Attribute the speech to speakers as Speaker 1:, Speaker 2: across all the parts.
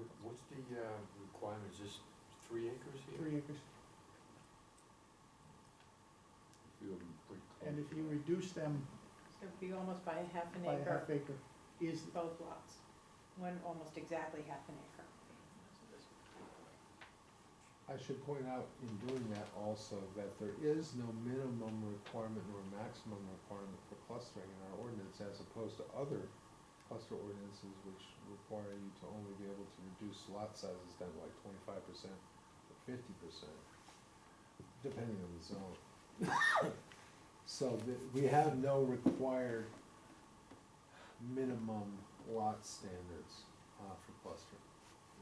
Speaker 1: the, uh, requirement, is this three acres here?
Speaker 2: three acres.
Speaker 1: Few of them pretty close.
Speaker 2: And if you reduce them
Speaker 3: So it'd be almost by a half an
Speaker 2: by a
Speaker 3: acre,
Speaker 2: half acre, is,
Speaker 3: both lots, one almost exactly half an acre.
Speaker 4: I should point out in doing that also that there is no minimum requirement nor maximum requirement for clustering in our ordinance as opposed to other cluster ordinances which require you to only be able to reduce lot sizes down to like twenty-five percent or fifty percent, depending on the zone. So that, we have no required minimum lot standards, uh, for clustering.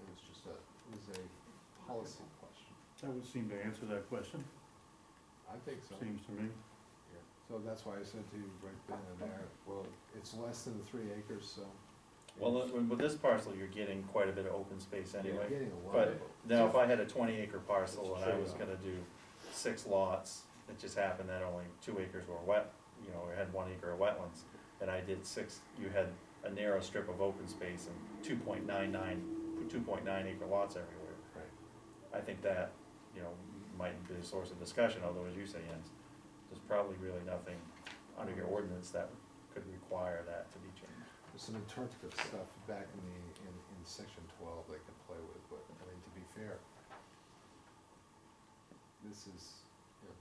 Speaker 4: It was just a, it was a policy question.
Speaker 5: That would seem to answer that question,
Speaker 4: I think so.
Speaker 5: seems to me.
Speaker 4: Yeah. So that's why I said to you right then and there, well, it's less than three acres, so.
Speaker 6: Well, look, with with this parcel, you're getting quite a bit of open space
Speaker 4: You're
Speaker 6: anyway.
Speaker 4: getting a lot
Speaker 6: but-
Speaker 4: of it.
Speaker 6: Now, if I had a twenty acre parcel and I
Speaker 4: Sure.
Speaker 6: was gonna do six lots, it just happened that only two acres were wet, you know, or had one acre of wetlands, and I did six, you had a narrow strip of open space and two point nine nine, two point nine acre lots everywhere.
Speaker 4: Right.
Speaker 6: I think that, you know, might be a source of discussion, although as you say, Jens, there's probably really nothing under your ordinance that could require that to be changed.
Speaker 4: There's some interpretive stuff back in the, in, in section twelve they can play with, but, I mean, to be fair, this is, you know,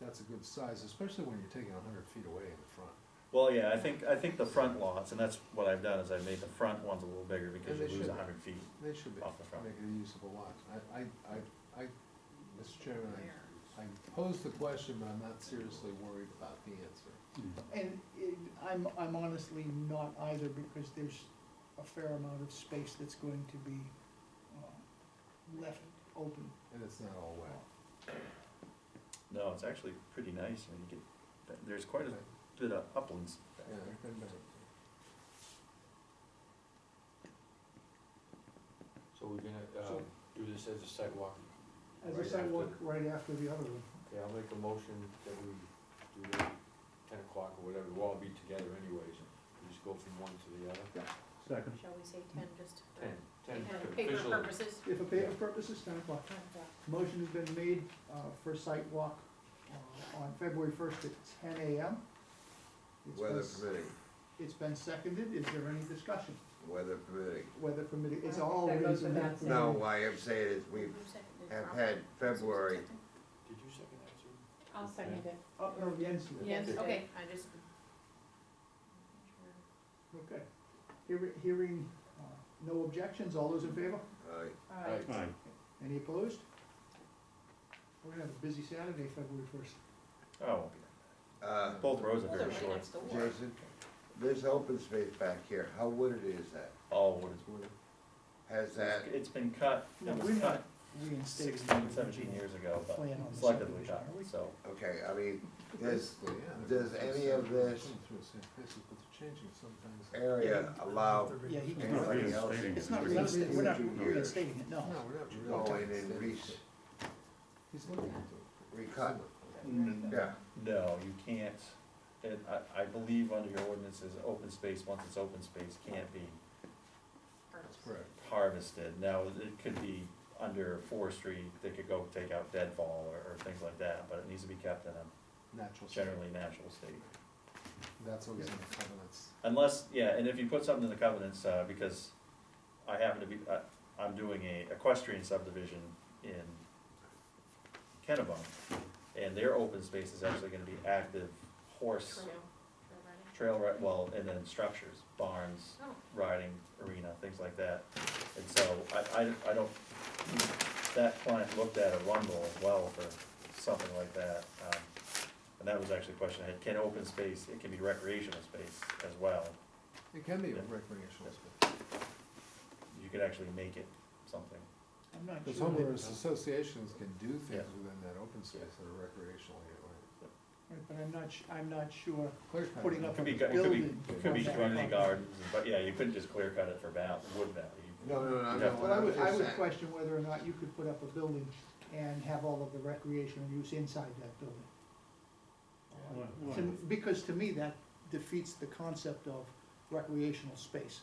Speaker 4: that's a good size, especially when you're taking a hundred feet away in the front.
Speaker 6: Well, yeah, I think, I think the front lots, and that's what I've done, is I've made the front ones a little bigger because
Speaker 4: And
Speaker 6: you
Speaker 4: they
Speaker 6: lose
Speaker 4: should.
Speaker 6: a hundred feet.
Speaker 4: They should be,
Speaker 6: Off the front.
Speaker 4: make a usable lot. I, I, I, I, Mr. Chairman, I I posed the question, but I'm not seriously worried about the answer.
Speaker 2: and it, I'm, I'm honestly not either, because there's a fair amount of space that's going to be, uh, left open.
Speaker 4: And it's not all wet.
Speaker 6: No, it's actually pretty nice, and you get, there's quite a bit of uplands back
Speaker 4: Yeah,
Speaker 6: there.
Speaker 4: I've been back.
Speaker 1: So we're gonna, uh,
Speaker 2: So-
Speaker 1: do this as a sidewalk?
Speaker 2: As
Speaker 1: Right
Speaker 2: a
Speaker 1: after-
Speaker 2: sidewalk, right after the other one.
Speaker 1: Okay, I'll make a motion that we do it at ten o'clock or whatever, we'll all be together anyways, we just go from one to the other.
Speaker 5: Second,
Speaker 3: Shall we say ten, just
Speaker 1: Ten, ten
Speaker 3: Paper
Speaker 1: officially.
Speaker 3: purposes.
Speaker 2: If a paper purpose is ten o'clock, motion has been made, uh, for site walk, uh, on February first at ten AM. It's been
Speaker 7: Weather
Speaker 2: s-
Speaker 7: permitting,
Speaker 2: It's been seconded, is there any discussion,
Speaker 7: weather permitting.
Speaker 2: weather permitting, it's
Speaker 3: I don't
Speaker 2: all
Speaker 3: think that goes
Speaker 2: reasonable.
Speaker 3: without saying.
Speaker 7: No, why I'm saying is we have had February,
Speaker 1: Did you second that, Sue?
Speaker 3: I'll second it.
Speaker 2: Oh, no, Jens did.
Speaker 3: Yes,
Speaker 1: Okay.
Speaker 3: okay, I just.
Speaker 2: Okay. Hear- Hearing, uh, no objections, all those in favor?
Speaker 7: uh,
Speaker 1: Right.
Speaker 5: aye.
Speaker 2: Any opposed? We're gonna have a busy Saturday, February first.
Speaker 6: Oh,
Speaker 7: uh,
Speaker 6: both rows are
Speaker 3: Those are
Speaker 6: very
Speaker 3: right
Speaker 6: short.
Speaker 3: next door.
Speaker 7: Jason, this open space back here, how wooded is that?
Speaker 6: All wood is wood.
Speaker 7: Has that,
Speaker 6: It's been cut,
Speaker 2: No,
Speaker 6: it was
Speaker 2: we're not
Speaker 6: cut sixteen, seventeen years ago, but
Speaker 2: Plan on the
Speaker 6: selectively
Speaker 2: subdivision,
Speaker 6: cut,
Speaker 2: are we?
Speaker 6: so.
Speaker 7: okay, I mean, this
Speaker 4: Basically, yeah, they're
Speaker 7: does
Speaker 4: going through
Speaker 7: any
Speaker 4: the
Speaker 7: of
Speaker 4: same- they're
Speaker 7: this-
Speaker 4: going through the same places, but they're changing sometimes.
Speaker 7: area allow
Speaker 2: Yeah,
Speaker 5: It's
Speaker 2: he
Speaker 5: not
Speaker 2: can,
Speaker 7: Anybody
Speaker 5: really
Speaker 7: else?
Speaker 5: stating
Speaker 2: it's
Speaker 5: it,
Speaker 2: not,
Speaker 5: really.
Speaker 2: really- we're not
Speaker 7: Really?
Speaker 2: reinstating it, no.
Speaker 4: No, we're not really.
Speaker 7: going in re-
Speaker 4: He's looking at it.
Speaker 7: recut?
Speaker 6: N-
Speaker 7: Yeah,
Speaker 6: No, you can't, and I, I believe under your ordinances, open space, once it's open space, can't be
Speaker 4: That's correct.
Speaker 6: harvested. Now, it could be under forestry, they could go take out deadfall or, or things like that, but it needs to be kept in a
Speaker 4: Natural. state.
Speaker 6: generally natural state.
Speaker 4: That's what was in the covenants.
Speaker 6: Unless, yeah, and if you put something in the covenants, uh, because I happen to be, uh, I'm doing a equestrian subdivision in Kennebunk, and their open space is actually gonna be active horse trail, right, well, and then structures, barns,
Speaker 3: Oh.
Speaker 6: riding arena, things like that. And so I, I, I don't, that client looked at Arundel as well for something like that. um, And that was actually a question I had, can open space, it can be recreational space as well.
Speaker 4: It can be a
Speaker 6: Yeah.
Speaker 4: recreational space.
Speaker 6: You could actually make it something.
Speaker 2: I'm not
Speaker 4: Because
Speaker 2: sure that-
Speaker 4: homeowners associations can do things
Speaker 6: Yeah.
Speaker 4: within that open space that are recreational.
Speaker 2: right, but I'm not, su- I'm not sure
Speaker 4: Clear
Speaker 2: putting up
Speaker 6: It could be,
Speaker 2: a
Speaker 6: it could be,
Speaker 2: building.
Speaker 6: it could be
Speaker 2: from that
Speaker 6: community
Speaker 2: property.
Speaker 6: gardens, but yeah, you couldn't just clear cut it for val, wood value.
Speaker 7: no, no, no,
Speaker 6: Yeah.
Speaker 7: no,
Speaker 2: But I
Speaker 7: I'm
Speaker 2: would, I
Speaker 7: just
Speaker 2: would
Speaker 7: saying.
Speaker 2: question whether or not you could put up a building and have all of the recreational use inside that building.
Speaker 5: Why-
Speaker 2: To-
Speaker 5: why?
Speaker 2: Because to me, that defeats the concept of recreational space.